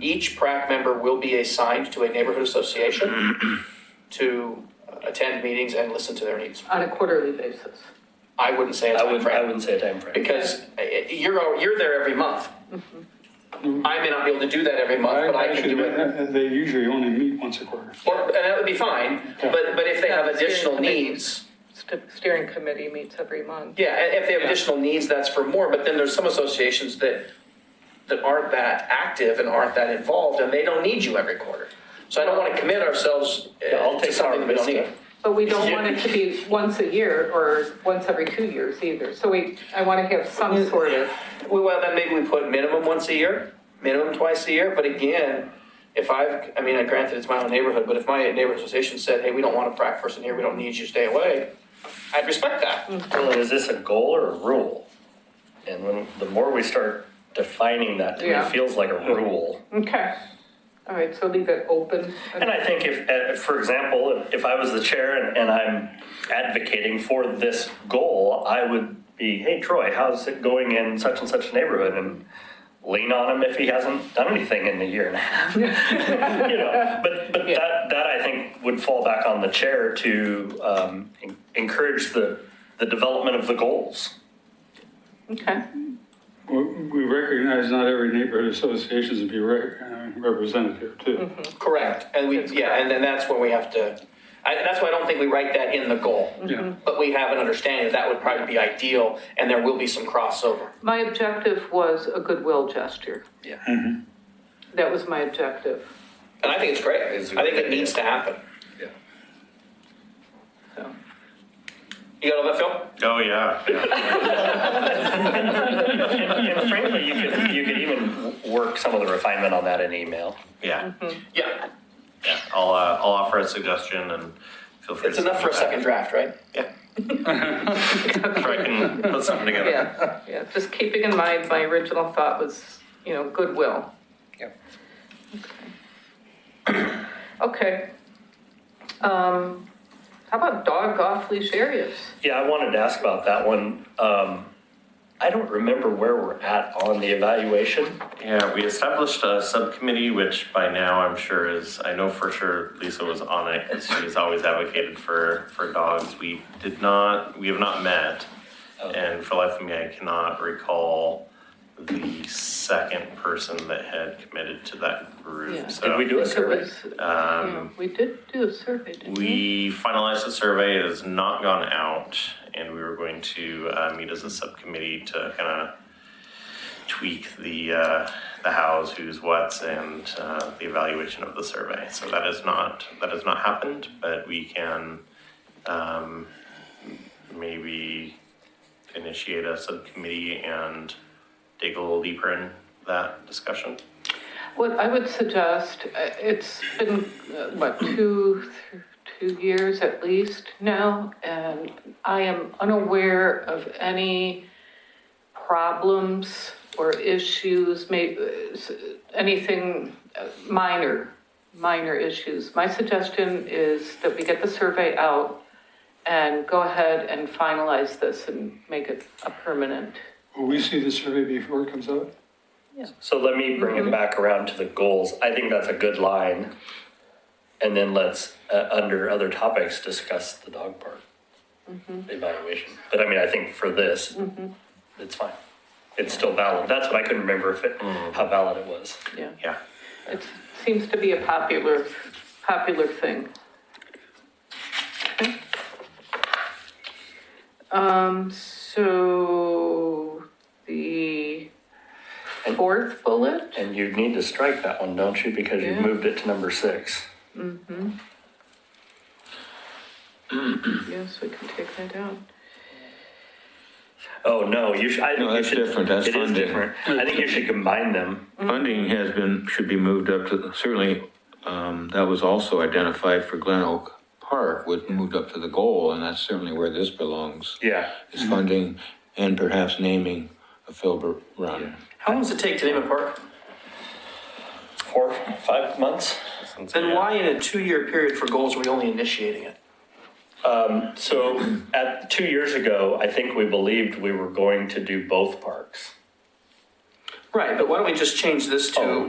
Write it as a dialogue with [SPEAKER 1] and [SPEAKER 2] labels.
[SPEAKER 1] Each PrAC member will be assigned to a neighborhood association to attend meetings and listen to their needs.
[SPEAKER 2] on a quarterly basis.
[SPEAKER 1] I wouldn't say it's
[SPEAKER 3] I
[SPEAKER 1] on
[SPEAKER 3] wouldn't, I
[SPEAKER 1] PrAC,
[SPEAKER 3] wouldn't say a time frame.
[SPEAKER 1] because uh, you're, al- you're there every month.
[SPEAKER 3] Mm-hmm.
[SPEAKER 1] I may not be able to do that every month, but I can
[SPEAKER 4] Actually,
[SPEAKER 1] do it.
[SPEAKER 4] uh, They usually only meet once a quarter.
[SPEAKER 1] Or- And that would be fine, but, but if they have additional needs,
[SPEAKER 2] St- Steering committee meets every month.
[SPEAKER 1] Yeah, and if they have additional needs, that's for more, but then there's some associations that, that aren't that active and aren't that involved, and they don't need you every quarter. So I don't want to commit ourselves uh,
[SPEAKER 3] Yeah, I'll
[SPEAKER 1] to
[SPEAKER 3] take power
[SPEAKER 1] something we don't need.
[SPEAKER 3] Vista.
[SPEAKER 2] But we don't want it to be once a year or once every two years either. So we, I want to have some sort of,
[SPEAKER 1] Well, well, then maybe we put minimum once a year, minimum twice a year, but again, if I've, I mean, granted, it's my own neighborhood, but if my neighborhood association said, hey, we don't want a prac person here, we don't need you, stay away, I'd respect that.
[SPEAKER 3] Well, is this a goal or a rule? And when, the more we start defining that, to me, it
[SPEAKER 2] Yeah.
[SPEAKER 3] feels like a rule.
[SPEAKER 2] okay. All right, so leave it open.
[SPEAKER 3] And I think if, uh, for example, if- if I was the chair and, and I'm advocating for this goal, I would be, hey, Troy, how's it going in such and such neighborhood? And lean on him if he hasn't done anything in a year and a half. you know, but but that that I think would fall back on the chair to um, en- encourage the the development of the goals.
[SPEAKER 2] Okay,
[SPEAKER 4] We we recognize not every neighborhood association is be re- uh, representative too.
[SPEAKER 1] Mm-hmm, Correct. And we,
[SPEAKER 2] That's
[SPEAKER 1] yeah, and then that's where we have to, I, that's why I don't think we write that in the goal.
[SPEAKER 4] Yeah.
[SPEAKER 1] But we have an understanding that that would probably be ideal, and there will be some crossover.
[SPEAKER 2] my objective was a goodwill gesture.
[SPEAKER 1] Yeah.
[SPEAKER 2] That was my objective,
[SPEAKER 1] And I think it's great.
[SPEAKER 3] It's a
[SPEAKER 1] I think
[SPEAKER 3] good
[SPEAKER 1] it needs to happen.
[SPEAKER 2] so.
[SPEAKER 1] You got all that, Phil?
[SPEAKER 5] Oh, yeah, yeah.
[SPEAKER 3] And, and frankly, you could you could even w- work some of the refinement on that in email.
[SPEAKER 5] Yeah,
[SPEAKER 1] Yeah.
[SPEAKER 5] yeah. I'll, uh, I'll offer a suggestion and feel free.
[SPEAKER 1] It's
[SPEAKER 5] to
[SPEAKER 1] enough for a second
[SPEAKER 5] send
[SPEAKER 1] draft, right?
[SPEAKER 5] it back. Yeah. So I can put something together.
[SPEAKER 2] Yeah, yeah, just keeping in mind, my original thought was, you know, goodwill.
[SPEAKER 3] Yep.
[SPEAKER 2] Okay. Um, how about dog off leash areas?
[SPEAKER 3] Yeah, I wanted to ask about that one. Um, I don't remember where we're at on the evaluation.
[SPEAKER 5] Yeah, we established a subcommittee, which by now I'm sure is, I know for sure Lisa was on it because she's always advocated for, for dogs. We did not, we have not met.
[SPEAKER 1] Oh.
[SPEAKER 5] And for life of me, I cannot recall the second person that had committed to that
[SPEAKER 2] Yeah.
[SPEAKER 5] group.
[SPEAKER 2] Did
[SPEAKER 5] So
[SPEAKER 3] Did we do a
[SPEAKER 2] I think it
[SPEAKER 3] survey?
[SPEAKER 2] was-
[SPEAKER 5] Um,
[SPEAKER 2] yeah, We did do a survey, didn't we?
[SPEAKER 5] We finalized the survey, it has not gone out, and we were going to uh, meet as a subcommittee to kind of tweak the, uh, the hows, who's, whats, and uh, the evaluation of the survey. So that is not, that has not happened, but we can um, maybe initiate a subcommittee and dig a little deeper in that discussion.
[SPEAKER 2] What I would suggest, uh, it's been, uh, what, two, th- two years at least now, and I am unaware of any problems or issues, may, uh, s- anything uh, minor, minor issues. My suggestion is that we get the survey out and go ahead and finalize this and make it a permanent.
[SPEAKER 4] Will we see the survey before it comes out?
[SPEAKER 3] So let me bring it back around to the goals. I think that's a good line. And then let's, uh, under other topics, discuss the dog part evaluation. But I mean, I think for this, it's fine. It's still valid. That's what I couldn't remember if it, how valid it was.
[SPEAKER 2] Yeah,
[SPEAKER 5] Yeah.
[SPEAKER 2] it seems to be a popular, popular thing. Okay. Um, so the fourth bullet,
[SPEAKER 3] And you need to strike that one, don't you? Because you
[SPEAKER 2] Yeah.
[SPEAKER 3] moved it to number six.
[SPEAKER 2] yes, we can take that out.
[SPEAKER 3] Oh, no, you should. I think
[SPEAKER 6] No,
[SPEAKER 3] you
[SPEAKER 6] that's
[SPEAKER 3] should-
[SPEAKER 6] different. That's
[SPEAKER 3] It is
[SPEAKER 6] funding.
[SPEAKER 3] different. I think you should combine them.
[SPEAKER 6] Funding has been, should be moved up to, the certainly, um, that was also identified for Glen Oak Park, was moved up to the goal, and that's certainly where this belongs.
[SPEAKER 3] Yeah.
[SPEAKER 6] Is funding and perhaps naming a Filbert Run.
[SPEAKER 1] How long does it take to name a park?
[SPEAKER 3] Four, five months?
[SPEAKER 5] since-
[SPEAKER 1] Then
[SPEAKER 5] yeah.
[SPEAKER 1] why in a two-year period for goals are we only initiating it?
[SPEAKER 3] So at two years ago, I think we believed we were going to do both parks.
[SPEAKER 1] Right, but why don't we just change this to